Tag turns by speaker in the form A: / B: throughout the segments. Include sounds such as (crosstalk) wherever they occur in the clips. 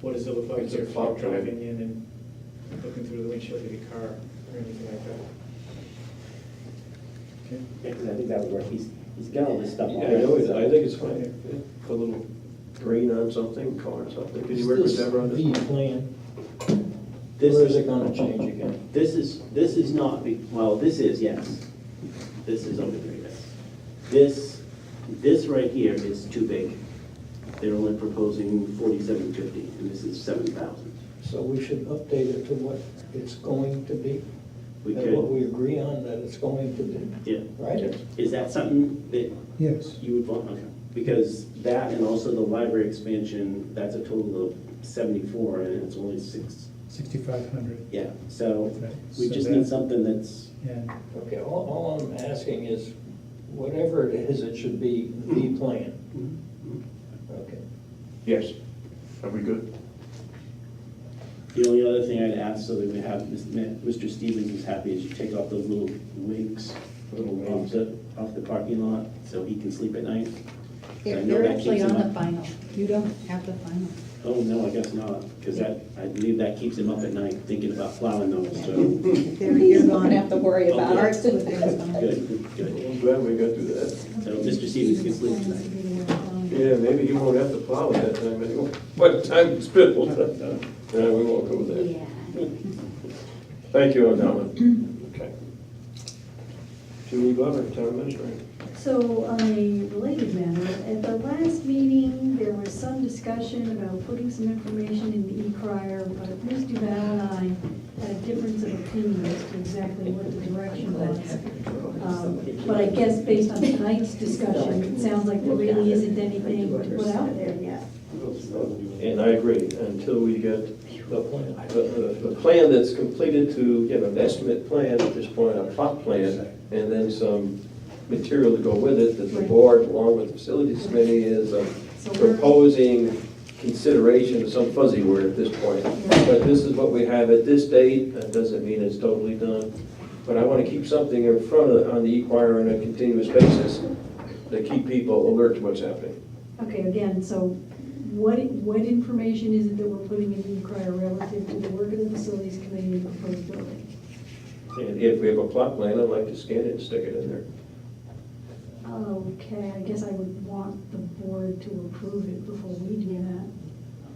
A: What does it look like
B: It's a
A: if you're
B: floodplain.
A: driving in and looking through the windshield of your car or anything like that?
C: Yeah, because I think that would work. He's, he's got all this stuff
B: Yeah, I
C: already.
B: know, it's-
C: so-
B: I think it's fine, Yeah, put a little green on something, color something, did
D: Is
B: you work with
D: this
B: Deborah on
D: the
B: this?
D: plan,
C: This
D: or is
C: is,
D: it gonna change again?
C: this is, this is not, be- well, this is, yes. This is over there, yes. This, this right here is too big. They're only proposing forty-seven fifty, and this is seven thousand.
D: So we should update it to what it's going to be?
C: We
D: And what
C: could,
D: we agree on that it's going to be,
C: yeah.
D: right?
C: Is that something that
E: Yes,
C: you would want? Okay. Because that and also the library expansion, that's a total of seventy-four, and it's only six,
E: 6,500.
C: yeah. So
E: Right,
C: we
E: so
C: just
E: that-
C: need something that's,
E: And
D: Okay, all, all I'm asking is, whatever it is, it should be the
C: Mm-hmm.
D: plan. Okay.
B: Yes, are we good?
C: The only other thing I'd ask, so that we have, Mr. Stevens is happy, is you take off those little wigs off the, off the parking lot, so he can sleep at night. I
F: They're
C: know
F: they're
C: that
F: actually
C: keeps
F: on
C: him
F: the
C: up.
F: final. You don't have the final.
C: Oh, no, I guess not, because that, I believe that keeps him up at night thinking about plowing those, so,
F: They're, you're gonna have to worry
C: about it.
F: Art's with them.
C: good, good.
B: I'm glad we got through that.
C: So Mr. Stevens can sleep tonight.
B: Yeah, maybe he won't have to plow at that time anymore. But time spent, well, (laughs) yeah, we won't go there.
F: Yeah.
B: Thank you, (clears throat) O'Donnell. Okay. Julie Glover, town administrator.
G: So on a related matter, at the last meeting, there was some discussion about putting some information in the e-crier, but Ms. Duval and I had a difference of opinion as to exactly what the direction was. Um, But I guess based on tonight's discussion, it sounds like there really isn't anything to put out there yet.
B: And I agree, until we get the plan, the, the- the plan that's completed to, you know, an estimate plan at this point, a plot plan, and then some material to go with it, that the board, along with the facilities committee, is uh,
G: So we're-
B: proposing consideration, some fuzzy word at this point. But this is what we have at this date, that doesn't mean it's totally done. But I want to keep something in front of, on the e-choir on a continuous basis, to keep people alert to what's happening.
G: Okay, again, so what, what information is it that we're putting in the e-crier relative to the work of the facilities committee and the proposed building?
B: And if we have a plot plan, I'd like to scan it and stick it in there.
G: Okay, I guess I would want the board to approve it before we do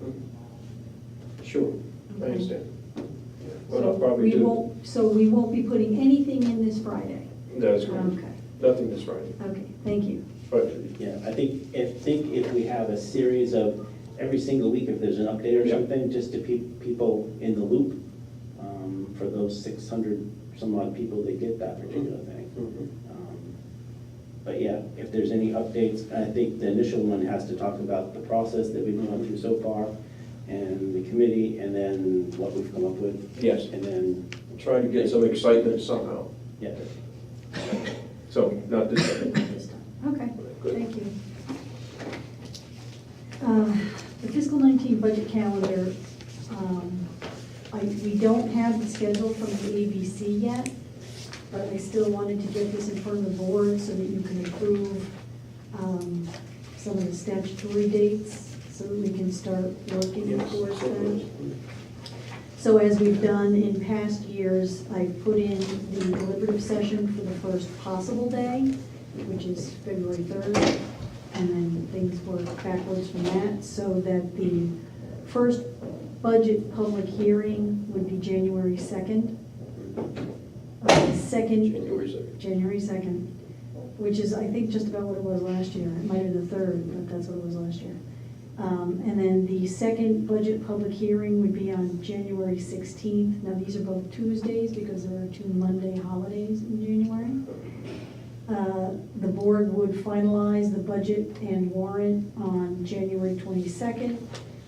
G: that.
B: Sure, I
G: Okay.
B: understand. What
G: So
B: I'll
G: we
B: probably do,
G: won't- So we won't be putting anything in this Friday?
B: that's correct,
G: Okay,
B: nothing this Friday,
G: okay, thank you.
B: but
C: Yeah, I think, I think if we have a series of, every single week, if there's an update or
B: Yeah.
C: something, just to keep people in the loop, um, for those six hundred some odd people that get that particular thing. Um, But yeah, if there's any updates, I think the initial one has to talk about the process that we've gone through so far, and the committee, and then what we've come up with,
B: yes,
C: and then,
B: try to get some excitement somehow,
C: yeah.
B: so not this Friday.
G: Okay,
B: Good.
G: thank you. Uh, The fiscal 19 budget calendar, um, I, we don't have the schedule from the ABC yet, but I still wanted to get this in front of the board so that you can approve um, some of the statutory dates, so that we can start working
B: Yes,
G: towards
B: so
G: them.
B: it
G: So as we've done in past years, I put in the deliberative session for the first possible day, which is February 3rd, and then things work backwards from that, so that the first budget public hearing would be January 2nd. Uh, the
B: was
G: Second,
B: January second.
G: January 2nd, which is, I think, just about what it was last year. It might have been the 3rd, but that's what it was last year. Um, And then the second budget public hearing would be on January 16th. Now, these are both Tuesdays because there are two Monday holidays in January. Uh, The board would finalize the budget and warrant on January 22nd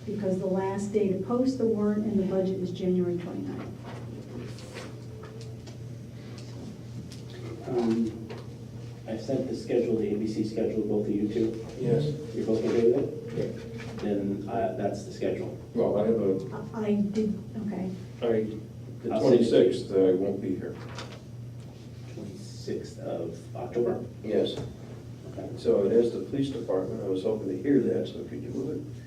G: because the last day to post the warrant and the budget is January 29th.
C: Um, I sent the schedule, the ABC schedule, both of you two.
B: Yes,
C: You're both okay with it? Then uh, that's the schedule.
B: well, I have a,
G: I- I did, okay.
B: I, the
C: I'll send it to you.
B: twenty-sixth, I won't be here.
C: 26th of October.
B: Yes,
C: Okay.
B: so it is the police department, I was hoping to hear that, so could you move Uh, it?